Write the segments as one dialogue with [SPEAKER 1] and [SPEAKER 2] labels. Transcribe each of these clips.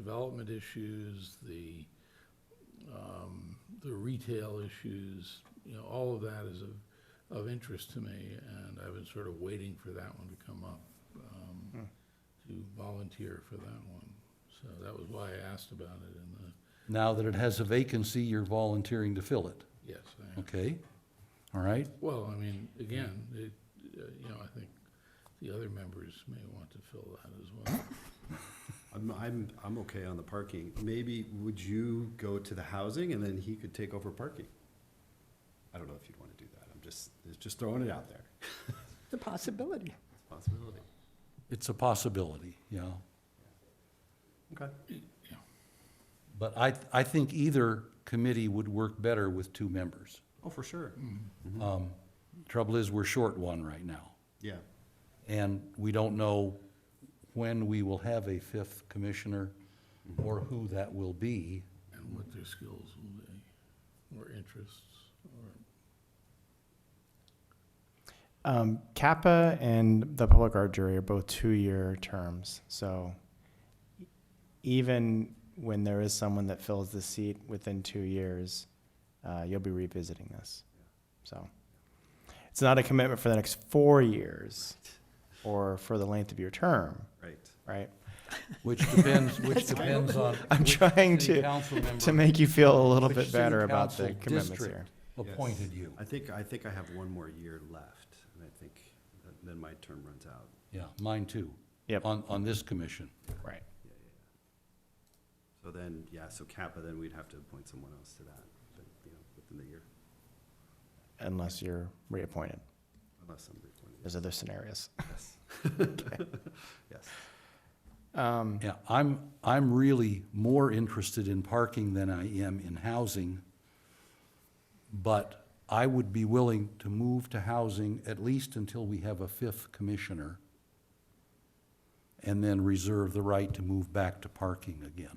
[SPEAKER 1] development issues, the, um, the retail issues, you know, all of that is of, of interest to me, and I've been sort of waiting for that one to come up, um, to volunteer for that one. So that was why I asked about it uh, in the,
[SPEAKER 2] Now that it has a vacancy, you're volunteering to fill it,
[SPEAKER 1] yes, I am.
[SPEAKER 2] okay? All right,
[SPEAKER 1] Well, I mean, again, it, uh, you know, I think the other members may want to fill that as well.
[SPEAKER 3] I'm, I'm, I'm okay on the parking. Maybe would you go to the housing and then he could take over parking? I don't know if you'd want to do that. I'm just, it's just throwing it out there.
[SPEAKER 4] The possibility.
[SPEAKER 3] Possibility.
[SPEAKER 2] it's a possibility, yeah.
[SPEAKER 3] Okay.
[SPEAKER 2] But I, I think either committee would work better with two members.
[SPEAKER 3] Oh, for sure.
[SPEAKER 2] Um, Trouble is, we're short one right now,
[SPEAKER 3] Yeah.
[SPEAKER 2] and we don't know when we will have a fifth commissioner or who that will be.
[SPEAKER 1] and what their skills will be, or interests, or,
[SPEAKER 5] Um, Kappa and the public art jury are both two-year terms, so e- even when there is someone that fills the seat within two years, uh, you'll be revisiting this. So it's not a commitment for the next four years or for the length of your term,
[SPEAKER 3] Right.
[SPEAKER 5] right?
[SPEAKER 2] Which depends, which depends on.
[SPEAKER 5] I'm
[SPEAKER 2] which
[SPEAKER 5] trying
[SPEAKER 2] city
[SPEAKER 5] to-
[SPEAKER 2] council member
[SPEAKER 5] To make you feel a little
[SPEAKER 2] Which
[SPEAKER 5] bit
[SPEAKER 2] city
[SPEAKER 5] better about the
[SPEAKER 2] council
[SPEAKER 5] commitments
[SPEAKER 2] district?
[SPEAKER 5] here.
[SPEAKER 2] appointed you.
[SPEAKER 3] I think, I think I have one more year left and I think that- then my term runs out.
[SPEAKER 2] Yeah, mine too.
[SPEAKER 5] Yep.
[SPEAKER 2] On, on this commission.
[SPEAKER 5] Right.
[SPEAKER 3] So then, yeah, so Kappa, then we'd have to appoint someone else to that, but, you know, within the year,
[SPEAKER 5] Unless you're reappointed.
[SPEAKER 3] unless somebody appointed.
[SPEAKER 5] There's other scenarios.
[SPEAKER 3] Yes. Yes.
[SPEAKER 5] Um,
[SPEAKER 2] Yeah, I'm, I'm really more interested in parking than I am in housing. But I would be willing to move to housing at least until we have a fifth commissioner. And then reserve the right to move back to parking again.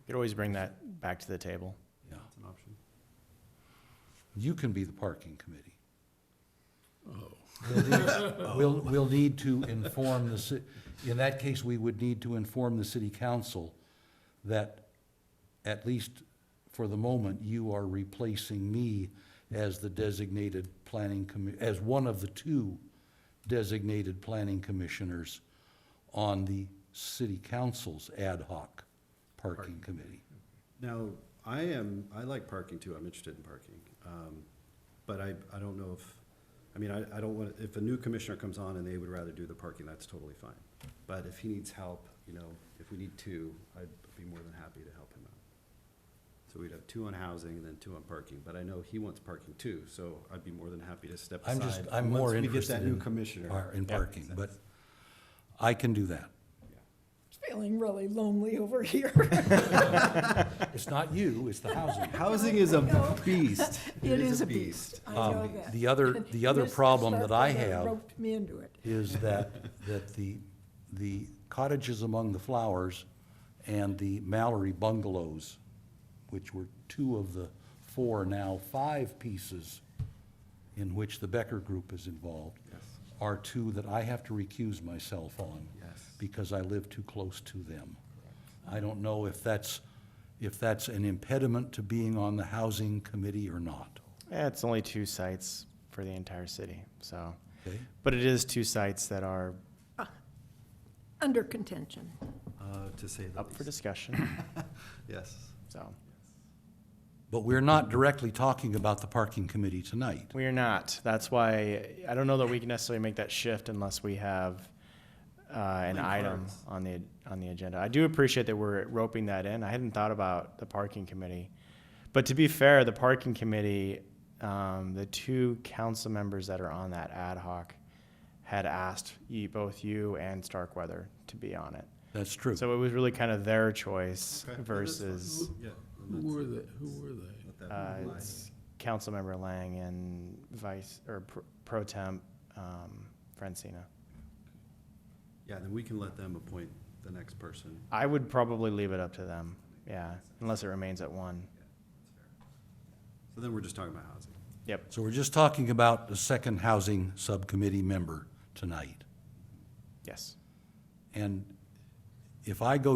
[SPEAKER 5] you could always bring that back to the table.
[SPEAKER 2] Yeah,
[SPEAKER 3] That's an option.
[SPEAKER 2] you can be the parking committee.
[SPEAKER 1] oh,
[SPEAKER 2] We'll, we'll need to inform the, ci- in that case, we would need to inform the city council that, at least for the moment, you are replacing me as the designated planning commi, as one of the two designated planning commissioners on the city council's ad hoc parking committee.
[SPEAKER 3] Now, I am, I like parking too, I'm interested in parking, um, but I, I don't know if, I mean, I, I don't want, if a new commissioner comes on and they would rather do the parking, that's totally fine. But if he needs help, you know, if we need two, I'd be more than happy to help him out. So we'd have two on housing and then two on parking, but I know he wants parking too, so I'd be more than happy to step
[SPEAKER 2] I'm
[SPEAKER 3] aside.
[SPEAKER 2] just, I'm more
[SPEAKER 3] Once we
[SPEAKER 2] interested
[SPEAKER 3] get that new commissioner.
[SPEAKER 2] in, par- in
[SPEAKER 5] Yeah.
[SPEAKER 2] parking, but I can do that.
[SPEAKER 4] Feeling really lonely over here.
[SPEAKER 2] It's not you, it's the housing.
[SPEAKER 3] Housing is a beast.
[SPEAKER 4] It is a beast. I know
[SPEAKER 2] Um,
[SPEAKER 4] that.
[SPEAKER 2] the other- the other
[SPEAKER 4] Mr.
[SPEAKER 2] problem that I
[SPEAKER 4] Sarkozy
[SPEAKER 2] have-
[SPEAKER 4] Roped me into it.
[SPEAKER 2] is that, that the, the cottages among the flowers and the Mallory bungalows, which were two of the four, now five pieces in which the Becker Group is involved, are two that I have to recuse myself on.
[SPEAKER 3] Yes.
[SPEAKER 2] Because I live too close to them. I don't know if that's, if that's an impediment to being on the housing committee or not,
[SPEAKER 5] Yeah, it's only two sites for the entire city, so.
[SPEAKER 2] okay?
[SPEAKER 5] But it is two sites that are
[SPEAKER 4] Under contention.
[SPEAKER 3] Uh, to say the
[SPEAKER 5] up for
[SPEAKER 3] least,
[SPEAKER 5] discussion,
[SPEAKER 3] yes.
[SPEAKER 5] so.
[SPEAKER 2] But we're not directly talking about the parking committee tonight.
[SPEAKER 5] We are not. That's why, I don't know that we can necessarily make that shift unless we have uh, an
[SPEAKER 3] Link
[SPEAKER 5] item
[SPEAKER 3] cards.
[SPEAKER 5] on the, on the agenda. I do appreciate that we're roping that in. I hadn't thought about the parking committee. But to be fair, the parking committee, um, the two council members that are on that ad hoc had asked you, both you and Starkweather to be on it.
[SPEAKER 2] That's true.
[SPEAKER 5] So it was really kind of their choice
[SPEAKER 3] Okay, well, that's fine.
[SPEAKER 5] versus
[SPEAKER 3] Yeah.
[SPEAKER 1] who were they, who were they?
[SPEAKER 3] Let that
[SPEAKER 5] uh,
[SPEAKER 3] lie.
[SPEAKER 5] it's Councilmember Lang and Vice, or Pro- Pro Temp um, Francina.
[SPEAKER 3] Yeah, then we can let them appoint the next person.
[SPEAKER 5] I would probably leave it up to them, yeah, unless it remains at one.
[SPEAKER 3] So then we're just talking about housing.
[SPEAKER 5] Yep,
[SPEAKER 2] So we're just talking about the second housing subcommittee member tonight.
[SPEAKER 5] yes.
[SPEAKER 2] And if I go